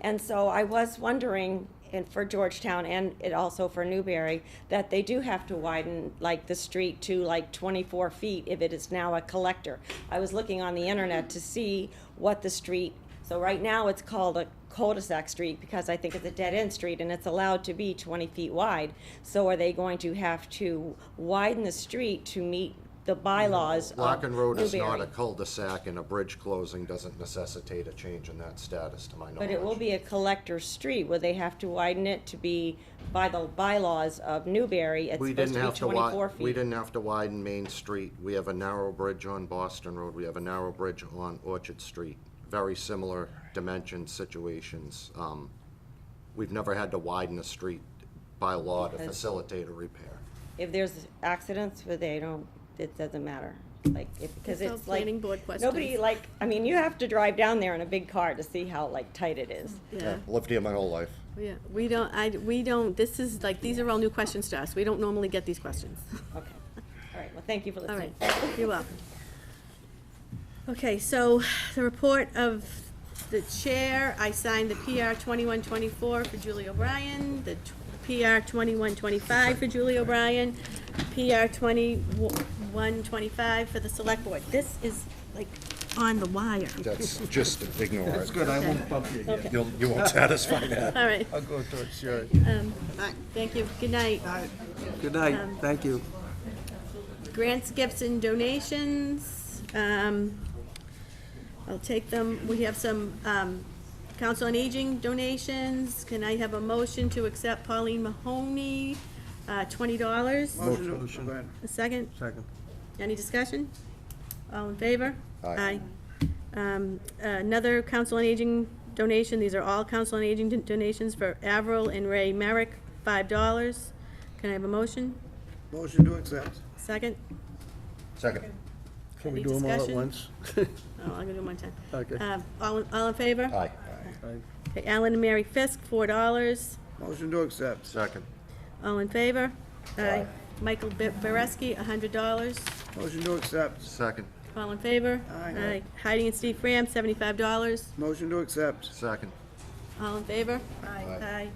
And so I was wondering, and for Georgetown and it also for Newberry, that they do have to widen like the street to like twenty-four feet if it is now a collector. I was looking on the internet to see what the street, so right now it's called a cul-de-sac street because I think it's a dead-end street and it's allowed to be twenty feet wide. So are they going to have to widen the street to meet the bylaws of Locken Road is not a Um, Newberry? cul-de-sac, and a bridge closing doesn't necessitate a change in that status, to my knowledge. But it will be a collector's street, where they have to widen it to be by the bylaws of Newberry, it's We supposed didn't to have be to wi- twenty-four feet. We didn't have to widen Main Street. We have a narrow bridge on Boston Road. We have a narrow bridge on Orchard Street. Very similar dimension situations. Um, We've never had to widen a street by law to Because- facilitate a repair. If there's accidents, where they don't, it doesn't matter, like, if, because It's all it's like. planning board Nobody questions. like, I mean, you have to drive down there in a big car to see how like tight it is. Yeah, Lived here my whole life. yeah, we don't, I, we don't, this is like, these are all new questions to us, we don't normally get these questions. Okay, all right, well, thank you for All right, listening. you're welcome. Okay, so the report of the chair, I signed the PR twenty-one twenty-four for Julie O'Brien, the tw- PR twenty-one twenty-five for Julie O'Brien, PR twenty-one twenty-five for the select board. This is like on the wire. That's, just ignore it. Good, I won't bump you again. You'll- You won't satisfy that. All right, I'll go towards your. thank you, good night. Good night, thank you. Grants, gifts, and donations, um, I'll take them. We have some, um, Council on Aging donations. Can I have a motion to accept Pauline Mahoney, uh, twenty dollars? Motion. A second? Second. Any discussion? All in favor? Aye. Aye. Um, Another Council on Aging donation, these are all Council on Aging don- donations for Avril and Ray Merrick, five dollars. Can I have a motion? Motion to accept. Second? Second. Can we Any do them all at discussion? once? Oh, I'm gonna do them one time. Okay. Um, All, all in favor? Aye. Okay, Alan and Mary Fisk, four dollars. Motion to accept. Second. All in favor? Aye. Michael Be- Bereski, a hundred dollars. Motion to accept. Second. All in favor? Aye. Heidi and Steve Graham, seventy-five dollars. Motion to accept. Second. All in favor? Aye. Aye.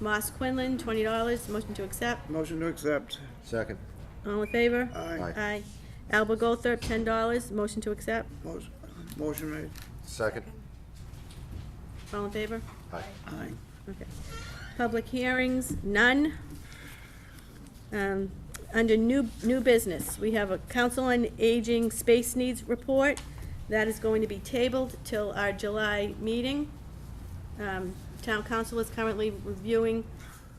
Moss Quinlan, twenty dollars. Motion to accept. Motion to accept. Second. All in favor? Aye. Aye. Aye. Alba Goldthorpe, ten dollars. Motion to accept. Motion- Motion made. Second. All in favor? Aye. Aye. Okay. Public hearings, none. Um, Under new, new business, we have a Council on Aging Space Needs Report. That is going to be tabled till our July meeting. Um, Town Council is currently reviewing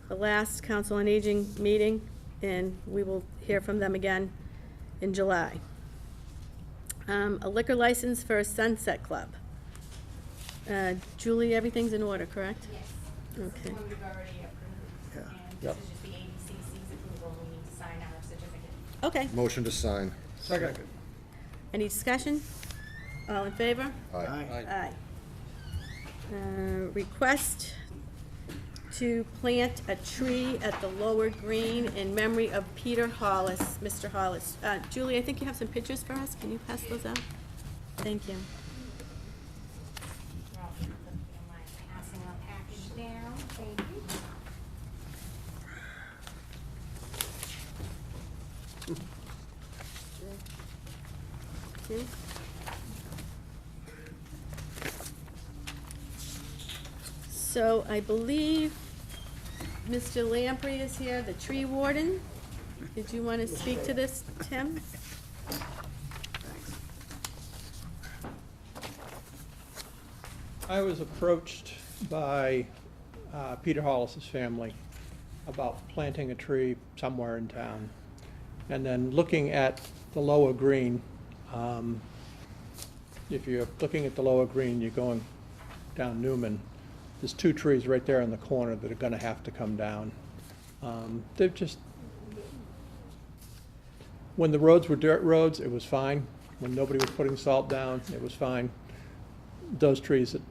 the last Council on Aging meeting, and we will hear from them again in July. Um, A liquor license for a Sunset Club. Uh, Julie, everything's in order, correct? Yes. Okay. One we've already approved. Yeah. And this is just the ABCC's approval. We need to sign our certificate. Okay, Motion to sign. Second. any discussion? All in favor? Aye. Aye. Uh, Request to plant a tree at the lower green in memory of Peter Hollis, Mr. Hollis. Uh, Julie, I think you have some pictures for us, can you pass those out? Thank you. We're all gonna put it in my passing out package now. Thank you. Two. So I believe Mr. Lamprey is here, the tree warden. Did you want to speak to this, Tim? I was approached by uh, Peter Hollis's family about planting a tree somewhere in town. And then looking at the lower green, um, if you're looking at the lower green, you're going down Newman. There's two trees right there in the corner that are gonna have to come down. Um, They're just, when the roads were dirt roads, it was fine. When nobody was putting salt down, it was fine those trees that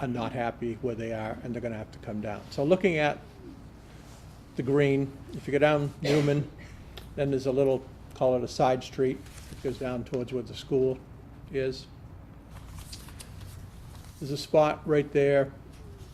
are not happy where they are, and they're gonna have to come down. So looking at the green, if you go down Newman, then there's a little, call it a side street, that goes down towards where the school is. There's a spot right there